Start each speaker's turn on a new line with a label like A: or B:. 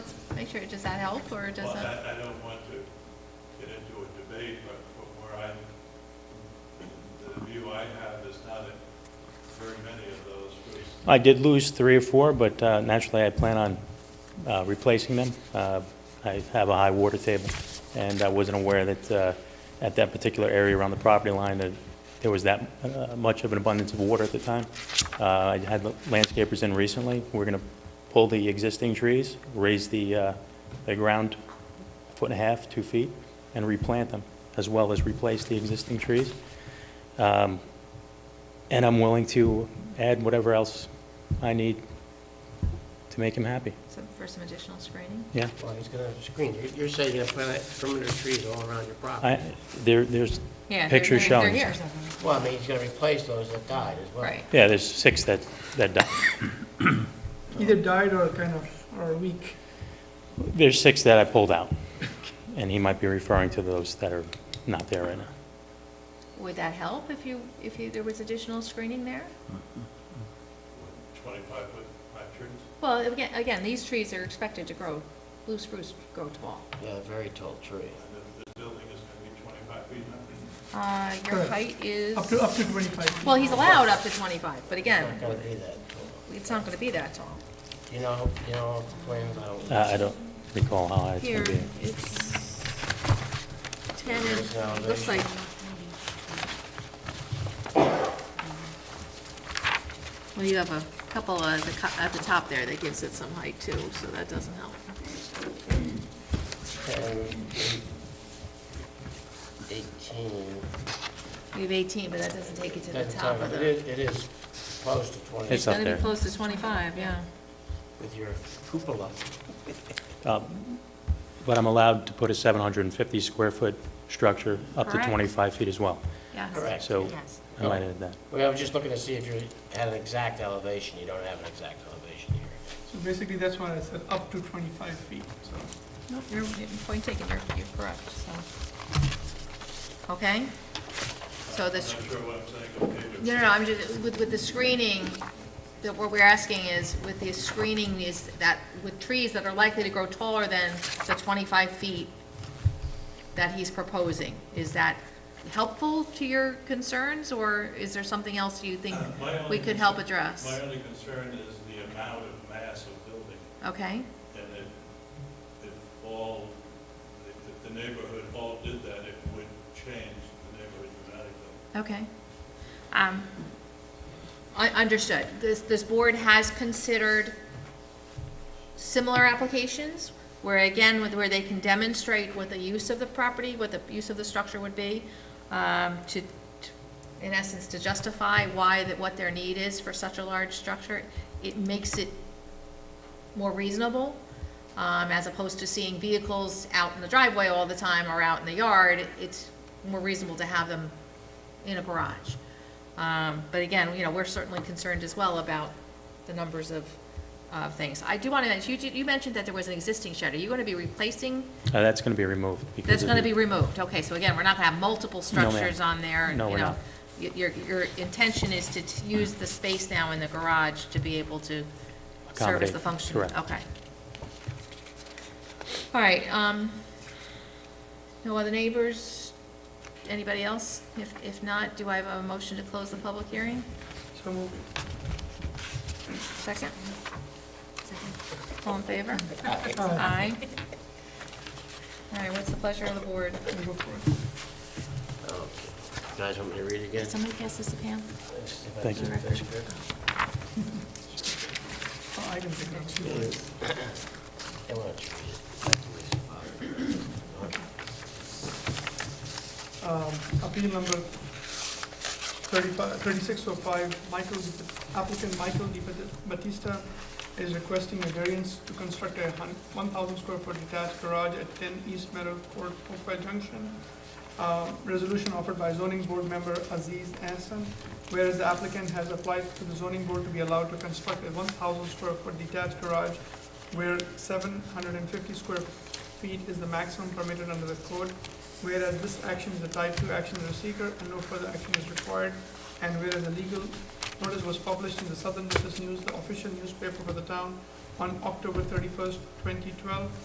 A: make sure, does that help, or
B: Well,
A: does that?
B: I, I don't want to get into a debate, but from where I'm, the view I have is not that very many of those roofs.
C: I did lose three or four, but uh, naturally, I plan on uh, replacing them. Uh, I have a high water table, and I wasn't aware that uh, at that particular area around the property line, that there was that uh, much of an abundance of water at the time. Uh, I had landscapers in recently. We're going to pull the existing trees, raise the uh, the ground a foot and a half, two feet, and replant them, as well as replace the existing trees. Um, and I'm willing to add whatever else I need to make him happy.
A: Some, for some additional screening?
C: Yeah.
D: Well, he's going to screen, You're- you're saying you're going to plant perimeter trees all around your property.
C: I, there, there's,
A: Yeah. they're-
C: Picture
A: they're-
C: showing.
A: They're here,
D: Well, I mean, he's going to replace those that died as well.
A: right.
C: yeah, there's six that, that died.
E: Either died or kind of, or weak.
C: There's six that I pulled out, and he might be referring to those that are not there right now.
A: Would that help if you, if you, there was additional screening there?
B: twenty-five foot pine trees.
A: Well, again, again, these trees are expected to grow, blue spruce grow tall.
D: Yeah, very tall tree.
B: And if this building is gonna be twenty-five feet high,
A: Uh, your
E: Correct.
A: height is,
E: Up to, up to 25.
A: well, he's allowed up to 25, but
D: Not
A: again,
D: going to be that tall.
A: it's not going to be that tall.
D: You know, you know, plans
C: Uh,
D: out.
C: I don't recall how high it's
A: Here,
C: gonna be.
A: it's 10, and- looks like, well, you have a couple at the, co- at the top there that gives it some height too, so that doesn't help.
D: Eighteen.
A: We have 18, but that doesn't take it to the
D: Doesn't
A: top
D: tell
A: of
D: you. It
A: the,
D: is, it is close to twenty
C: It's
A: it's
C: up
A: going to
C: there.
A: be close to 25, yeah.
D: with your cupola.
C: Um, But I'm allowed to put a 750 square foot structure up to
A: Correct.
C: 25 feet as well.
A: Yes.
D: Correct.
C: So
A: Yes.
C: I might add that.
D: Well, I was just looking to see if you had an exact elevation. You don't have an exact elevation here.
E: So basically, that's why I said up to 25 feet, so.
A: Nope, you're, you're- point taken, you're, you're correct, so. Okay? So
B: I'm
A: this,
B: not sure what I'm saying, okay, but.
A: no, no, no, I'm just, with, with the screening, that what we're asking is, with the screening is that, with trees that are likely to grow taller than the twenty-five feet that he's proposing, is that helpful to your concerns, or is there something else you think
B: Uh, My only
A: we could help
B: concern-
A: address?
B: My only concern is the amount of mass of building,
A: Okay,
B: and if, if all, if if the neighborhood all did that, it would change the neighborhood dramatically.
A: okay. Um, I, understood. This, this board has considered similar applications, where again, with, where they can demonstrate what the use of the property, what the use of the structure would be, um, to, to- in essence, to justify why, that what their need is for such a large structure. It makes it more reasonable, um, as opposed to seeing vehicles out in the driveway all the time or out in the yard. It's more reasonable to have them in a garage. Um, But again, you know, we're certainly concerned as well about the numbers of, of things. I do want to, mention you, you mentioned that there was an existing shed. Are you going to be replacing?
C: Uh, That's gonna be removed. because
A: That's
C: of
A: going to
C: the-
A: be removed. Okay, so again, we're not going to have multiple
C: ma'am.
A: structures on there.
C: No,
A: you
C: we're
A: know.
C: not.
A: Y- Your, your intention is to t- use the space now in the garage to be able to service
C: Accommodate,
A: the function?
C: correct.
A: Okay. All right, um, no other neighbors? Anybody else? If, if not, do I have a motion to close the public hearing?
E: So moved.
A: Second? Second. All in favor?
E: Aye.
A: Aye. All right, what's the pleasure of the board?
E: We'll go for it.
D: Okay. You Guys, want me to read it again?
A: Did somebody pass this to Pam?
C: Thank you.
E: Oh, I can take it up.
D: I want to read it.
E: Um, Appeal number 35 3605, Michael, Di- applicant Michael Di Bat- Batista is requesting a variance to construct a hun- 1,000 square foot detached garage at 10 East Meadow Court, Oakville Junction. Uh, Resolution offered by zoning board member Aziz Anson, whereas the applicant has applied to the zoning board to be allowed to construct a 1,000 square foot detached garage where 750 square feet is the maximum permitted under the code whereas this action is a type two action of the seeker and no further action is required, and whereas a legal notice was published in the Southern Business News, the official newspaper for the town, on October thirty-first, twenty twelve,